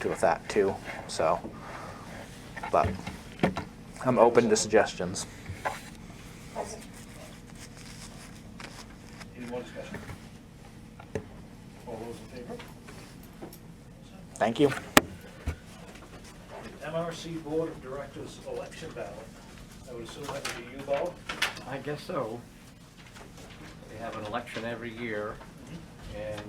good with that too. So, but I'm open to suggestions. Any more discussion? All those in favor? Thank you. The MRC Board of Directors election ballot. I would assume that would be you, Bob? I guess so. We have an election every year, and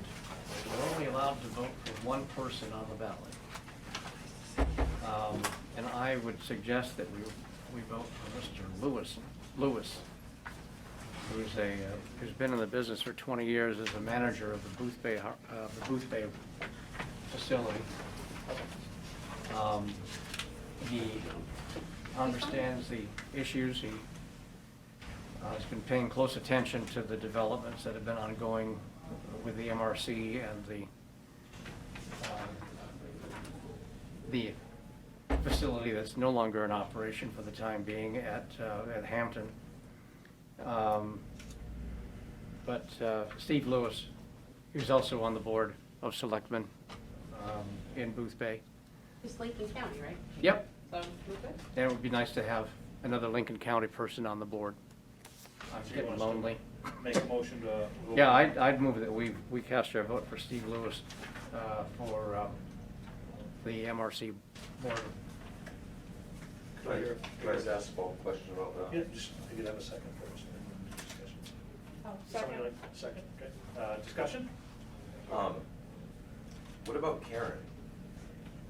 we're only allowed to vote for one person on the ballot. Um, And I would suggest that we, we vote for Mr. Lewis, Lewis, who's a, uh, who's been in the business for 20 years as a manager of the Booth Bay, Har- uh, the Booth Bay facility. Um, He understands the issues, he uh, Has been paying close attention to the developments that have been ongoing with the MRC and the, um, the facility that's no longer in operation for the time being at, uh, at Hampton. Um, But uh, Steve Lewis, who's also on the Board of Selectmen um, in Booth Bay. It's Lincoln County, right? Yep, So, we're good? and it would be nice to have another Lincoln County person on the board. I'm So you getting want us to lonely. Make a motion to. Yeah, uh, I'd, I'd move that we, we cast our vote for Steve Lewis uh, for um, the MRC board. Can I, can I just ask uh, a small question about Yeah, that? just, I could have a second first. and then discussion. Oh, Somebody like, second, okay. Uh, discussion? Um, what about Karen?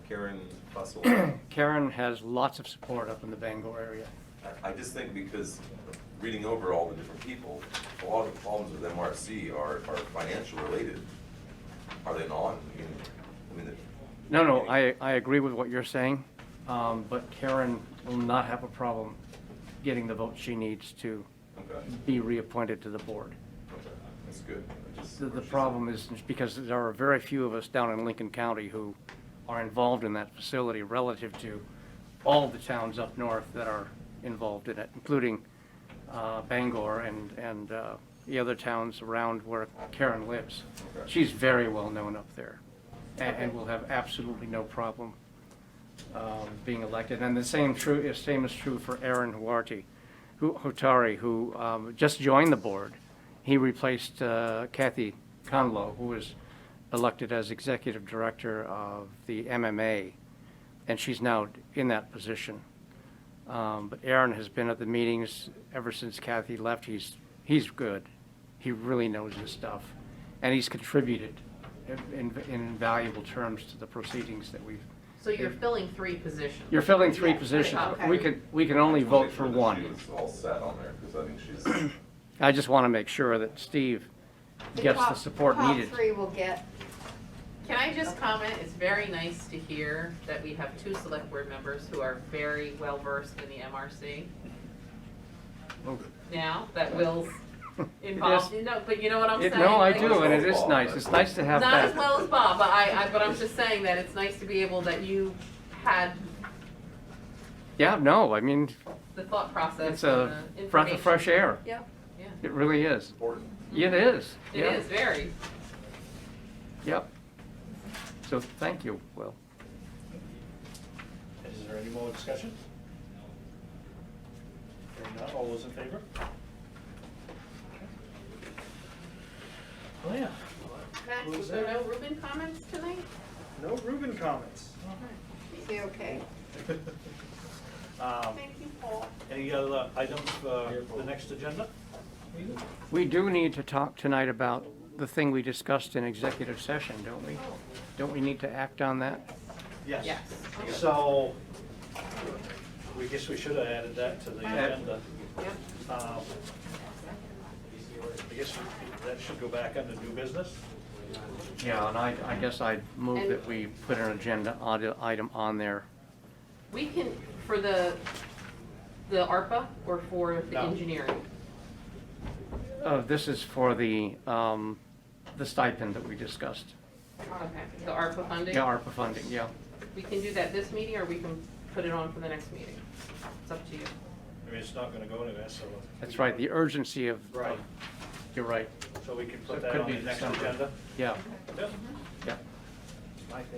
Karen Fussell? Karen has lots of support up in the Bangor area. I- I just think because reading over all the different people, a lot of the problems with MRC are, are financial related. Are they not? I mean, I mean, the- No, no, I, I agree with what you're saying, um, but Karen will not have a problem getting the vote she needs to Okay, be reappointed to the board. okay, that's good. I just- The, the problem is because there are very few of us down in Lincoln County who are involved in that facility relative to all the towns up north that are involved in it, including uh, Bangor and, and uh, the other towns around where Karen lives. Okay. She's very well-known up there a- and will have absolutely no problem um, being elected. And the same true, is same is true for Aaron Huarty, who, Hotari, who um, just joined the board. He replaced uh, Kathy Conlow, who was elected as executive director of the MMA, and she's now in that position. Um, But Aaron has been at the meetings ever since Kathy left. He's, he's good. He really knows his stuff. And he's contributed in in invaluable terms to the proceedings that we've So you're filling three positions? you're filling three Yeah, positions. okay. We can, we can only I just wanna vote make for sure that She one. was all set on there, because I think she's, I just want to make sure that Steve gets the support needed. Top three will get, Can I just comment, it's very nice to hear that we have two select board members who are very well-versed in the MRC now, that Will's involved, Oh. Yes. no, but you know what I'm It- saying? No, I Like, do, and it is nice. It's nice to have Not as that. well as Bob, but I, I, but I'm just saying that it's nice to be able, that you had Yeah, no, I mean, the thought process it's and a the breath of information. fresh air. Yeah, yeah, It really is. important. It is. it Yeah. is, very. Yep. So thank you, Will. Is there any more discussion? Hearing none, all those in favor? Oh, yeah. Max, was was there no Ruben comments tonight? No Reuben comments. be okay. Um, Thank you, Paul. Any other items for the next agenda? We do need to talk tonight about the thing we discussed in executive session, don't we? Oh. Don't we need to act on that? Yes. So, we guess we should have added that to the agenda. Yep. Um, I guess that should go back under new business. Yeah, and I, I guess I'd move And- that we put an agenda ide- item on there. We can, for the, the ARPA or for the No. engineering? Uh, This is for the, um, the stipend that we discussed. Okay, the ARPA funding? Yeah, ARPA funding, yeah. We can do that this meeting or we can put it on for the next meeting. It's up to you. I mean, it's not gonna go anywhere, so. That's right, the urgency of, of- Right. you're right, So we can So put it that could on be the next December. agenda? yeah, Yep. yeah.